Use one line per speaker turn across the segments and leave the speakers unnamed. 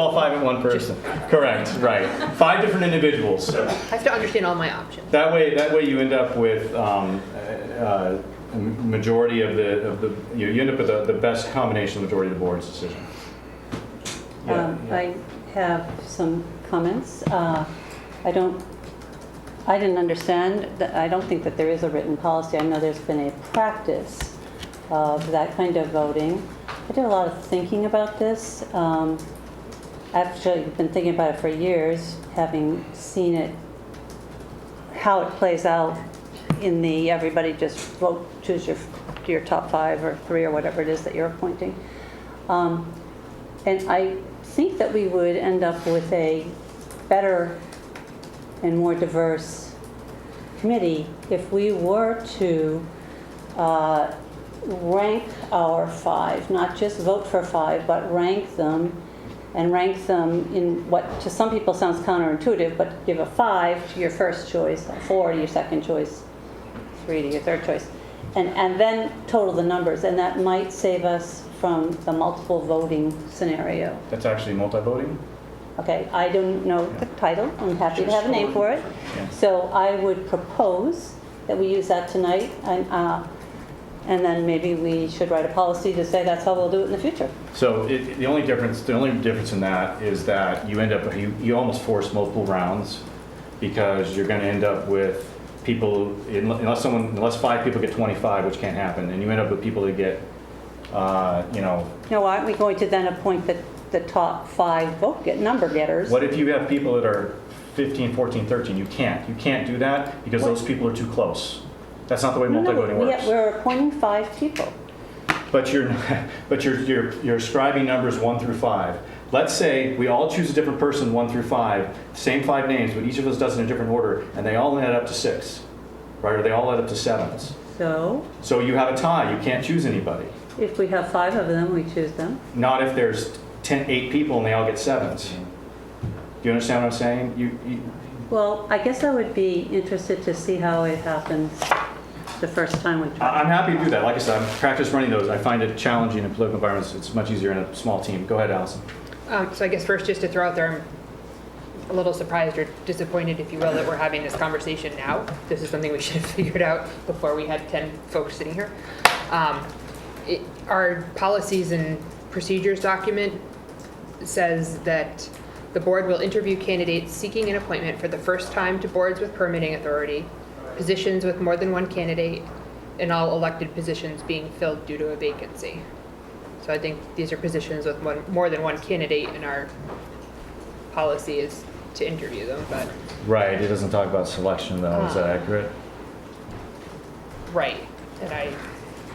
All five in one person. Correct, right. Five different individuals.
I have to understand all my options.
That way, that way you end up with um, uh, a majority of the, of the, you you end up with the the best combination of majority of the board's decision. Yeah,
Um,
yeah.
I have some comments. Uh, I don't, I didn't understand, that- I don't think that there is a written policy. I know there's been a practice of that kind of voting. I did a lot of thinking about this. Um, Actually, I've been thinking about it for years, having seen it, how it plays out in the, everybody just vote, choose your, your top five or three or whatever it is that you're appointing. Um, and I think that we would end up with a better and more diverse committee if we were to uh, rank our five, not just vote for five, but rank them and rank them in what to some people sounds counterintuitive, but give a five to your first choice, a four to your second choice, three to your third choice. And, and then total the numbers, and that might save us from the multiple voting scenario.
That's actually multi-voting?
Okay, I don't know the title, I'm happy to have a name for it.
Yeah.
So I would propose that we use that tonight, and, uh, and then maybe we should write a policy to say that's how we'll do it in the future.
So it, the only difference, the only difference in that is that you end up, you, you almost force multiple rounds because you're gonna end up with people, unless someone, unless five people get 25, which can't happen, and you end up with people that get, uh, you know,
Now, aren't we going to then appoint the, the top five vote get, number getters?
What if you have people that are 15, 14, 13? You can't. You can't do that because those people are too close. That's not the way
No, no,
multi-voting
we-
works.
We're appointing five people.
But you're, but you're, you're, you're ascribing numbers one through five. Let's say we all choose a different person, one through five, same five names, but each of us does it in a different order, and they all add up to six, right? Or they all add up to sevens.
So
So you have a tie. You can't choose anybody.
if we have five of them, we choose them.
Not if there's 10, eight people and they all get sevens. Do you understand what I'm saying? You, you,
Well, I guess I would be interested to see how it happens the first time we try.
I- I'm happy to do that. Like I said, I've practiced running those. I find it challenging in political environments. It's much easier in a small team. Go ahead, Allison.
Um, So I guess first, just to throw out there, I'm a little surprised or disappointed, if you will, that we're having this conversation now. This is something we should have figured out before we had 10 folks sitting here. Um, it- Our policies and procedures document says that the board will interview candidates seeking an appointment for the first time to boards with permitting authority, positions with more than one candidate, and all elected positions being filled due to a vacancy. So I think these are positions with one, more than one candidate, and our policy is to interview them, but,
Right. It doesn't talk about selection, though.
Is that
accurate?
right. And I,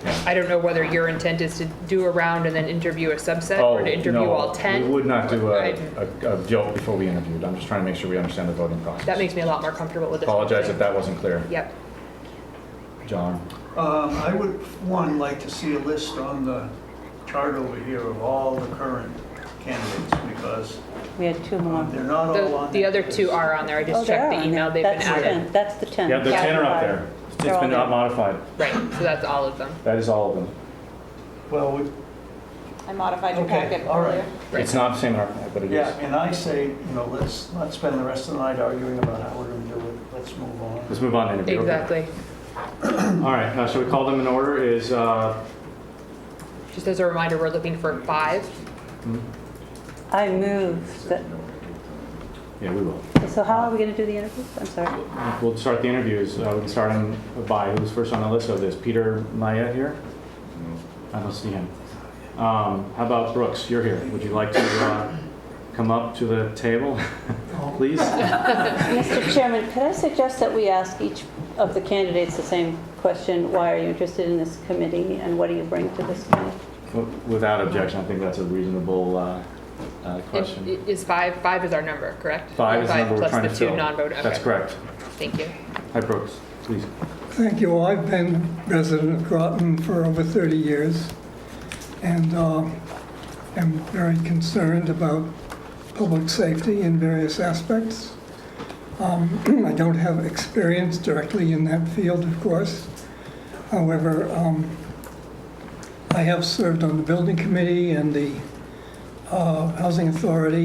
Yeah.
I don't know whether your intent is to do a round and then interview a subset,
Oh,
or to interview
no,
all
We
10.
would not do a,
Right.
a, a joke before we interviewed. I'm just trying to make sure we understand the voting process.
That makes me a lot more comfortable with this. whole
Apologize
thing.
if that wasn't clear.
Yep,
John.
Um, I would, one, like to see a list on the chart over here of all the current candidates, because
We had two more.
they're not all
the,
on.
the
that
other
list.
two are on there, I
Oh,
just
they are
checked the
on
email, they've
there.
been
That's the
added.
10. That's the 10.
Yeah, the
Yeah,
10 are up
they're
there. It's
They're all
been not
there.
modified.
Right, so that's all of them.
That is all of them.
Well, we-
I modified your packet
okay, all
earlier.
right.
It's not the same in our, but it
Yeah,
is.
and I say, you know, let's not spend the rest of the night arguing about how we're gonna do it. Let's move on.
Let's move on to interview. okay?
Exactly.
All right. Uh, so we call them in order is, uh,
Just as a reminder, we're looking for five.
I move that,
yeah, we will.
so how are we going to do the interviews? I'm sorry.
We'll start the interviews. Uh, we can start on by who's first on the list of this. Peter Maya here? I don't see him. Um, how about Brooks? You're here. Would you like to uh, come up to the table, please?
Mr. Chairman, could I suggest that we ask each of the candidates the same question? Why are you interested in this committee, and what do you bring to this committee?
W- Without objection, I think that's a reasonable uh, uh,
And
question.
i- Is five, five is our number, correct?
Five is the number we're trying to
Plus the two
fill.
non-voting, okay.
That's correct.
Thank you.
Hi, Brooks. Please.
Thank you. I've been resident of Groton for over 30 years and uh, am very concerned about public safety in various aspects. Um, I don't have experience directly in that field, of course. However, um, I have served on the building committee and the uh, housing authority